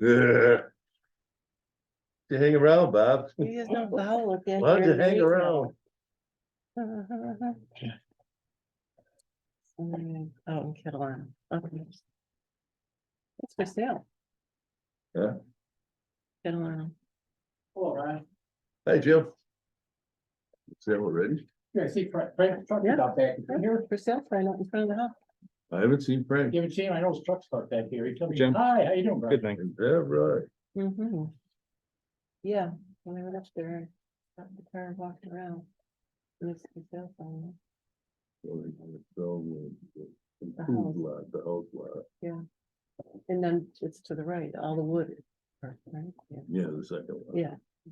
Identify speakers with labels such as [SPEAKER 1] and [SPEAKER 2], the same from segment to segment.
[SPEAKER 1] Yeah. You hang around, Bob.
[SPEAKER 2] He is not loud like that.
[SPEAKER 1] Why'd you
[SPEAKER 2] here,
[SPEAKER 1] hang
[SPEAKER 2] he's not.
[SPEAKER 1] around?
[SPEAKER 2] Mm, Out in Catalina, okay. It's for sale.
[SPEAKER 1] Yeah.
[SPEAKER 2] Catalina,
[SPEAKER 3] All right.
[SPEAKER 1] Hey, Jim. Is that already?
[SPEAKER 3] Yeah, see, Frank, Frank's truck is out back here.
[SPEAKER 2] for sale sign out in front of the house.
[SPEAKER 1] I haven't seen Frank.
[SPEAKER 3] You haven't seen him? I know his truck's out back here. He told me,
[SPEAKER 4] Jim.
[SPEAKER 3] hi, how you doing, bro?
[SPEAKER 4] Good night.
[SPEAKER 1] Yeah, right.
[SPEAKER 2] Mm-hmm. Yeah, when I went up there, got in the car and walked around. And it's for sale sign,
[SPEAKER 1] The food lot, the house lot.
[SPEAKER 2] and then it's to the right, all the wood. is burnt, right? Yeah.
[SPEAKER 1] Yeah, the second one.
[SPEAKER 2] Yeah,
[SPEAKER 1] I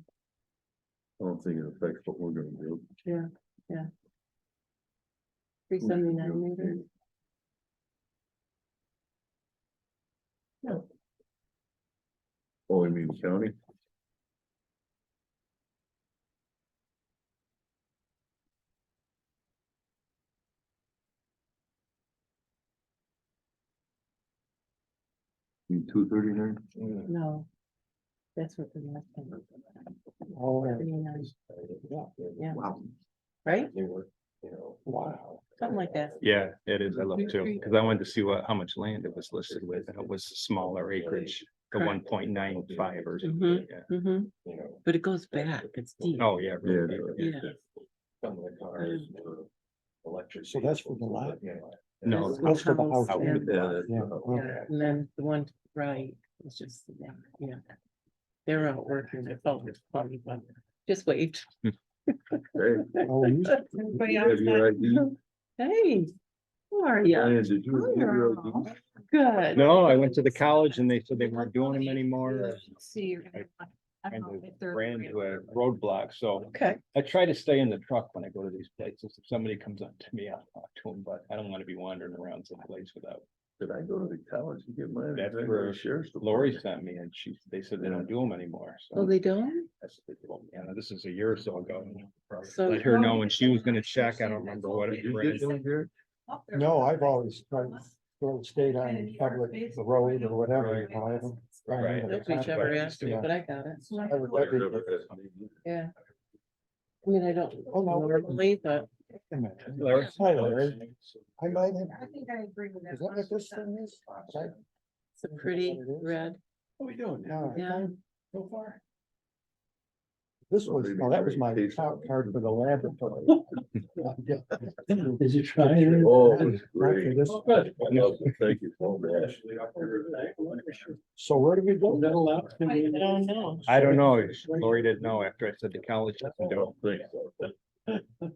[SPEAKER 1] don't think it affects what we're gonna do.
[SPEAKER 2] yeah, yeah. Three seventy-nine meters.
[SPEAKER 1] Oh, you mean county? You two thirty-nine?
[SPEAKER 2] No. That's what the last one was.
[SPEAKER 3] Oh, yeah.
[SPEAKER 2] Thirty-nine, Yeah.
[SPEAKER 3] Wow.
[SPEAKER 2] Right?
[SPEAKER 3] They were, you know, wow.
[SPEAKER 2] Something like that.
[SPEAKER 4] Yeah, it is. I love too, because I wanted to see what, how much land it was listed with, and it was smaller acreage, the
[SPEAKER 2] Correct.
[SPEAKER 4] one point nine five or something.
[SPEAKER 2] Mhm.
[SPEAKER 4] yeah.
[SPEAKER 2] Mm-hmm,
[SPEAKER 3] You know,
[SPEAKER 2] but it goes back, it's deep.
[SPEAKER 4] Oh, yeah.
[SPEAKER 1] Yeah.
[SPEAKER 4] really deep.
[SPEAKER 2] Yeah,
[SPEAKER 3] some of the cars were electric.
[SPEAKER 5] So that's for the lot?
[SPEAKER 3] Yeah.
[SPEAKER 4] No,
[SPEAKER 2] That's what
[SPEAKER 5] house for the house,
[SPEAKER 2] yeah.
[SPEAKER 1] Yeah, that's-
[SPEAKER 5] Yeah, okay.
[SPEAKER 2] yeah, And then the one to the right is just, yeah, yeah. They're out working, their phone is probably, but just waved.
[SPEAKER 1] Hey,
[SPEAKER 5] Oh, you-
[SPEAKER 2] Everybody
[SPEAKER 1] have your
[SPEAKER 2] outside.
[SPEAKER 1] ID?
[SPEAKER 2] Hey, who are you?
[SPEAKER 1] Diane, did you get your
[SPEAKER 2] Oh,
[SPEAKER 1] ID?
[SPEAKER 2] Good.
[SPEAKER 4] no, I went to the college and they said they weren't doing them anymore.
[SPEAKER 6] See, you're gonna. I
[SPEAKER 4] Kind
[SPEAKER 6] don't
[SPEAKER 4] of
[SPEAKER 6] know if they're
[SPEAKER 4] ran
[SPEAKER 6] real.
[SPEAKER 4] into a roadblock, so
[SPEAKER 2] Okay,
[SPEAKER 4] I try to stay in the truck when I go to these places. If somebody comes up to me, I'll talk to them, but I don't want to be wandering around someplace without.
[SPEAKER 1] Did I go to the college to get mine?
[SPEAKER 4] That's
[SPEAKER 1] Did I go to
[SPEAKER 4] where
[SPEAKER 1] Sheriff's.
[SPEAKER 4] Lori
[SPEAKER 1] Department?
[SPEAKER 4] sent me and she, they said they don't do them anymore,
[SPEAKER 2] oh,
[SPEAKER 4] so.
[SPEAKER 2] they don't?
[SPEAKER 4] That's what they told me. And this is a year or so ago.
[SPEAKER 2] So-
[SPEAKER 4] Let her know when she was gonna check. I don't remember what it
[SPEAKER 1] You get
[SPEAKER 4] was.
[SPEAKER 1] them here?
[SPEAKER 6] Up there.
[SPEAKER 5] No, I've always tried, to stayed on public road or whatever. you know, I haven't run
[SPEAKER 4] Right.
[SPEAKER 5] into the
[SPEAKER 2] That's whichever
[SPEAKER 5] contract.
[SPEAKER 2] asked me,
[SPEAKER 5] Yeah.
[SPEAKER 2] but I got it.
[SPEAKER 6] So I
[SPEAKER 5] I would
[SPEAKER 6] look
[SPEAKER 5] never-
[SPEAKER 2] Yeah. I mean, I don't
[SPEAKER 5] Oh, no.
[SPEAKER 2] normally, but
[SPEAKER 4] Larry?
[SPEAKER 5] Hi, Larry. I might have,
[SPEAKER 6] I think I agree with that.
[SPEAKER 5] is that what this thing is? Right?
[SPEAKER 2] it's a pretty
[SPEAKER 5] What it is?
[SPEAKER 2] red,
[SPEAKER 3] What we doing now
[SPEAKER 5] No, I
[SPEAKER 2] yeah.
[SPEAKER 5] thought
[SPEAKER 3] so far?
[SPEAKER 5] This was, no, that was my top card for the laboratory. Did you try it?
[SPEAKER 1] Oh, it was
[SPEAKER 5] Right
[SPEAKER 1] great.
[SPEAKER 5] for this-
[SPEAKER 3] good.
[SPEAKER 1] I love it. Thank you so much.
[SPEAKER 5] So where do we go?
[SPEAKER 3] Is that allowed?
[SPEAKER 6] I
[SPEAKER 2] don't know.
[SPEAKER 4] I don't know. Lori didn't know after I said the college doesn't do
[SPEAKER 1] Don't think so.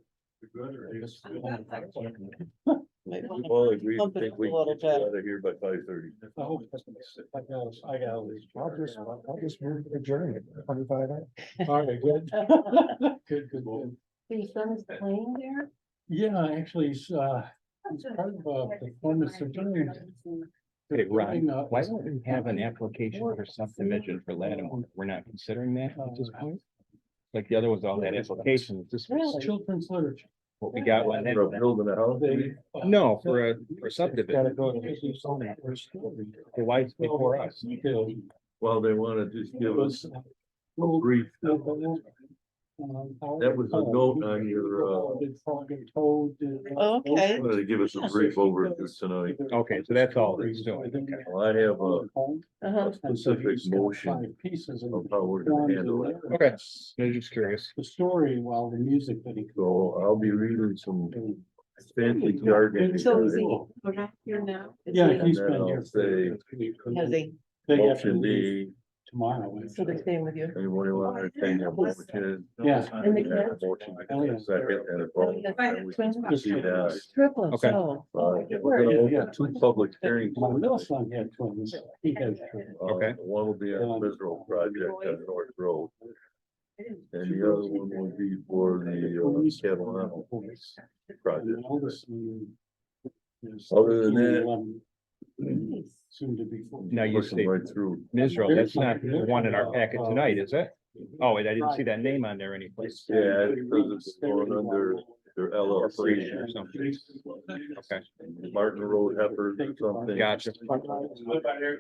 [SPEAKER 1] We all agree,
[SPEAKER 2] Pump it
[SPEAKER 1] think
[SPEAKER 2] up
[SPEAKER 1] we
[SPEAKER 2] a little
[SPEAKER 1] can get you
[SPEAKER 2] bit.
[SPEAKER 1] out of here by five thirty.
[SPEAKER 3] I hope that's what they said. I got, I got. all these.
[SPEAKER 5] I'll just, I'll just move the journey twenty-five.
[SPEAKER 3] All right, good. Good, good, good.
[SPEAKER 2] Your son is playing there?
[SPEAKER 3] Yeah, actually, it's, uh, it's part of uh, the performance of doing.
[SPEAKER 4] Hey, Ron,
[SPEAKER 3] Uh,
[SPEAKER 4] Why don't we have an application for subdivision for Lattimore? We're not considering that at this point? Like the other was all that application, this
[SPEAKER 3] It's
[SPEAKER 4] was
[SPEAKER 3] children's literature.
[SPEAKER 4] what we got. when
[SPEAKER 1] For
[SPEAKER 4] that-
[SPEAKER 1] building a house,
[SPEAKER 3] They.
[SPEAKER 4] No, for a, for
[SPEAKER 5] uh, Gotta
[SPEAKER 4] subdivision.
[SPEAKER 5] go to the zoning first.
[SPEAKER 4] The wife's before us.
[SPEAKER 3] It
[SPEAKER 1] well, they wanna just give us
[SPEAKER 3] was. uh, Little.
[SPEAKER 1] brief,
[SPEAKER 3] That
[SPEAKER 1] That was a note on your, uh,
[SPEAKER 2] Oh, Okay.
[SPEAKER 1] wanted to give us a brief overview tonight.
[SPEAKER 4] Okay, so that's all that's doing, okay.
[SPEAKER 1] Well, I have a
[SPEAKER 2] Uh-huh.
[SPEAKER 1] specific motion
[SPEAKER 3] Five Pieces of.
[SPEAKER 1] of how we're gonna handle it.
[SPEAKER 4] Okay. I'm just curious.
[SPEAKER 3] The story while the music that he.
[SPEAKER 1] So I'll be reading some
[SPEAKER 3] And-
[SPEAKER 1] fancy jargon.
[SPEAKER 2] So is he, we're not here now? Is
[SPEAKER 3] Yeah,
[SPEAKER 2] he-
[SPEAKER 3] he's
[SPEAKER 1] And then
[SPEAKER 3] been
[SPEAKER 1] I'll
[SPEAKER 3] here.
[SPEAKER 1] say-
[SPEAKER 2] Has
[SPEAKER 3] They
[SPEAKER 2] he,
[SPEAKER 3] have to
[SPEAKER 1] Option
[SPEAKER 3] leave
[SPEAKER 1] D,
[SPEAKER 3] tomorrow.
[SPEAKER 2] so they're staying with you?
[SPEAKER 1] anybody want to entertain that motion?
[SPEAKER 3] Yeah.
[SPEAKER 2] And the
[SPEAKER 1] And a
[SPEAKER 2] kids?
[SPEAKER 1] motion
[SPEAKER 4] Oh,
[SPEAKER 1] and a Second and a vote. and we can proceed that.
[SPEAKER 2] Triplets,
[SPEAKER 4] Okay.
[SPEAKER 2] oh.
[SPEAKER 1] Uh, We're gonna open two public hearings.
[SPEAKER 3] My middle son had twins. He had.
[SPEAKER 1] Uh,
[SPEAKER 4] Okay. Um,
[SPEAKER 1] One will be on Federal project on North Road, and the other one will be for the uh, Catalano
[SPEAKER 3] Boys. And
[SPEAKER 1] project.
[SPEAKER 3] the oldest one is
[SPEAKER 1] Other than that-
[SPEAKER 3] 11, Soon to be. 14.
[SPEAKER 4] Now you
[SPEAKER 1] Pushing
[SPEAKER 4] see,
[SPEAKER 1] right through.
[SPEAKER 4] Israel, that's not the one in our packet tonight, is it? Oh, wait, I didn't see that name on there anyplace.
[SPEAKER 1] Yeah, because it's going under their LLC.
[SPEAKER 4] Corporation or something. Okay.
[SPEAKER 1] Martin Road Heifers or something.
[SPEAKER 4] Gotcha.